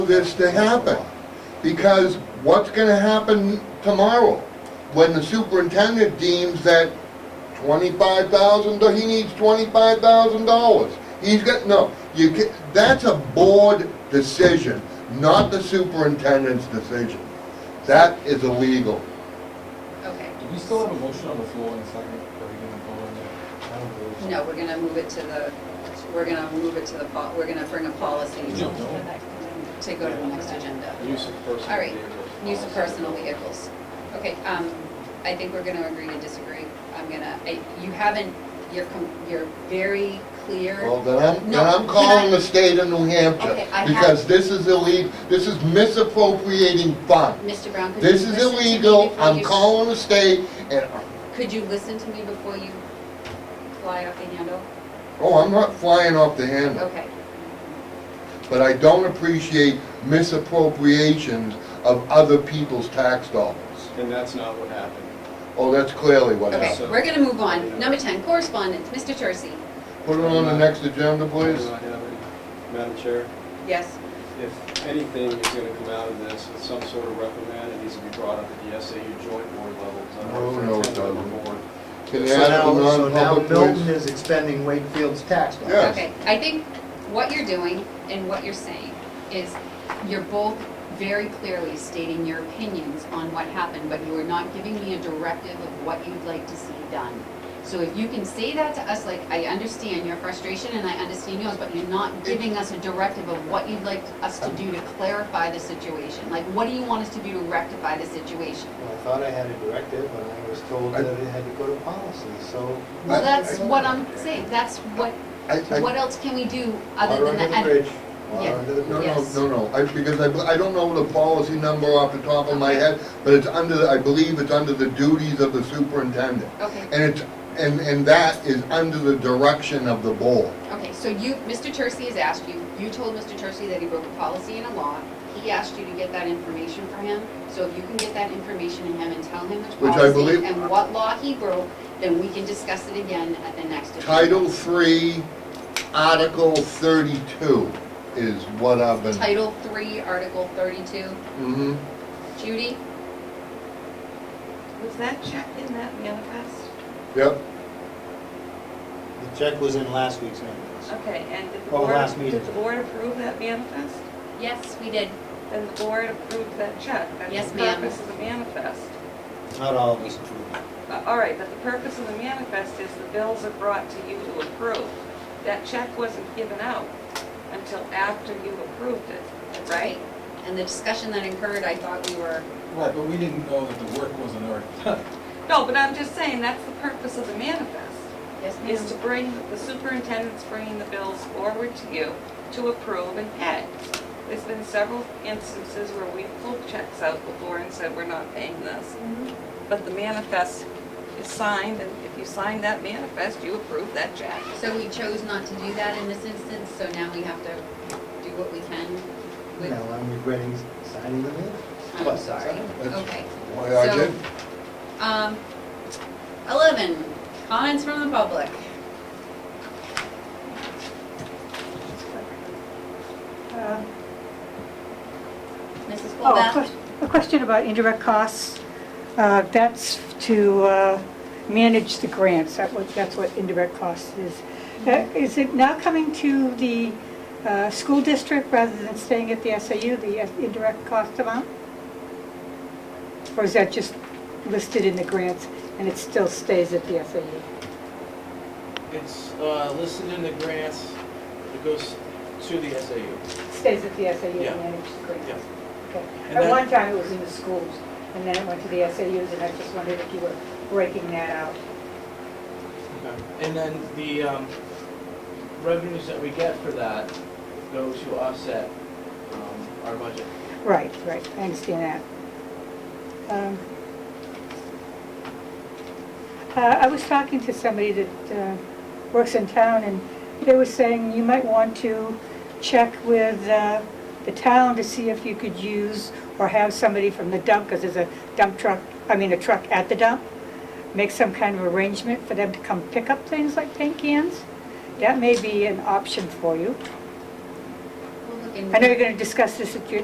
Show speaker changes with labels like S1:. S1: this to happen. Because what's gonna happen tomorrow when the superintendent deems that twenty-five thousand, he needs twenty-five thousand dollars? He's got, no, you ca that's a board decision, not the superintendent's decision. That is illegal.
S2: Okay,
S3: Do we still have a motion on the floor in a second? Are we gonna vote on that? I don't believe so.
S2: no, we're gonna move it to the, we're gonna move it to the, pol- we're gonna bring a policy
S3: No, no.
S2: to go to the next agenda.
S4: Use of personal vehicles.
S2: All right, use of personal vehicles. Okay, um, I think we're gonna agree to disagree. I'm gonna, I, you haven't, you're, com- you're very clear.
S1: Well, then I'm,
S2: No,
S1: then I'm
S2: can
S1: calling
S2: I-
S1: the state of New Hampshire.
S2: Okay, I have-
S1: Because this is illegal, this is misappropriating funds.
S2: Mr. Brown, could you
S1: This
S2: listen to me
S1: is
S2: before you?
S1: illegal, I'm calling the state, and,
S2: Could you listen to me before you fly off the handle?
S1: oh, I'm not flying off the handle,
S2: Okay,
S1: but I don't appreciate misappropriations of other people's tax dollars.
S4: And that's not what happened.
S1: Oh, that's clearly what
S2: okay,
S1: happened.
S4: so-
S2: we're gonna move on. Number ten, correspondence, Mr. Tercey.
S1: Put it on the next agenda, please.
S4: Do I have any- Madam Chair,
S2: Yes.
S4: if anything is gonna come out of this, it's some sort of reprimand, it needs to be brought up at the SAU joint board level. It's not
S1: No,
S4: for a
S1: no, it
S4: ten-member
S1: doesn't.
S4: board.
S1: Can you
S5: So
S1: add
S5: now,
S1: the
S5: so now
S1: non-public,
S5: Milton
S1: please?
S5: is expending Wakefield's tax dollars.
S1: Yeah. Yes.
S2: Okay, I think what you're doing and what you're saying is you're both very clearly stating your opinions on what happened, but you are not giving me a directive of what you'd like to see done. So if you can say that to us, like, I understand your frustration and I understand yours, but you're not giving us a directive of what you'd like us to do to clarify the situation. Like, what do you want us to do to rectify the situation?
S6: Well, I thought I had a directive, and I was told that it had to go to policy, so.
S2: Well, that's what I'm saying, that's what,
S1: I- I-
S2: what else can we do other
S6: Water
S2: than
S6: under
S2: that?
S6: the bridge, water
S2: Yeah.
S6: under the
S1: No,
S6: bridge.
S1: no,
S2: Yes.
S1: no, no, I, because I, I don't know the policy number off the top of my head, but it's under, the- I believe it's under the duties of the superintendent.
S2: Okay.
S1: And it's, and, and that is under the direction of the board.
S2: Okay, so you, Mr. Tercey has asked you, you told Mr. Tercey that he broke a policy and a law. He asked you to get that information for him, so if you can get that information to him and tell him which
S1: Which I
S2: policy
S1: believe-
S2: and what law he broke, then we can discuss it again at the next agenda.
S1: Title three, Article thirty-two is what I've been.
S2: Title three, Article thirty-two.
S1: Mhm.
S2: Judy?
S7: Was that check in that manifest?
S1: Yep,
S6: The check was in last week's manifest.
S7: Okay, and did the
S6: Oh,
S7: board,
S6: last meeting.
S7: did the board approve that manifest?
S2: Yes, we did.
S7: Then the board approved that check. That's
S2: Yes,
S7: the
S2: ma'am.
S7: purpose of the manifest.
S6: Not all of us approved it.
S7: Uh, All right, but the purpose of the manifest is the bills are brought to you to approve. That check wasn't given out until after you approved it, right?
S2: And the discussion that occurred, I thought we were,
S3: Right, but we didn't know that the work wasn't already done.
S7: No, but I'm just saying, that's the purpose of the manifest.
S2: yes,
S7: is to
S2: ma'am.
S7: bring, the superintendent's bringing the bills forward to you to approve and pay. There's been several instances where we pulled checks out before and said, we're not paying this. But the manifest is signed, and if you sign that manifest, you approve that check.
S2: So we chose not to do that in this instance, so now we have to do what we can with,
S6: Now, I'm regretting signing the minute.
S2: I'm
S6: Plus,
S2: sorry,
S1: that's
S2: okay.
S1: why I
S2: So-
S1: did.
S2: Um, eleven, comments from the public.
S8: Uh,
S2: Mrs.
S8: Oh, a
S2: Colback?
S8: ques- a question about indirect costs. Uh, That's to uh, manage the grants, That what- that's what indirect costs is. Uh, Is it now coming to the uh, school district rather than staying at the SAU, the indirect cost amount? Or is that just listed in the grants and it still stays at the SAU?
S9: It's uh, listed in the grants, it goes to the SAU.
S8: Stays at the SAU
S9: Yeah.
S8: and manages the grants?
S9: Yeah.
S8: Okay.
S9: And
S8: At
S9: that-
S8: one time, it was in the schools, and then it went to the SAUs, and I just wondered if you were breaking that out.
S9: And then the um, revenues that we get for that go to offset um, our budget.
S8: Right, right, I understand that. Um, uh, I was talking to somebody that uh, works in town, and they were saying you might want to check with uh, the town to see if you could use or have somebody from the dump, because there's a dump truck, I mean, a truck at the dump, make some kind of arrangement for them to come pick up things like paint cans. That may be an option for you.
S2: We'll look into
S8: I know
S2: it.
S8: you're going to discuss this at your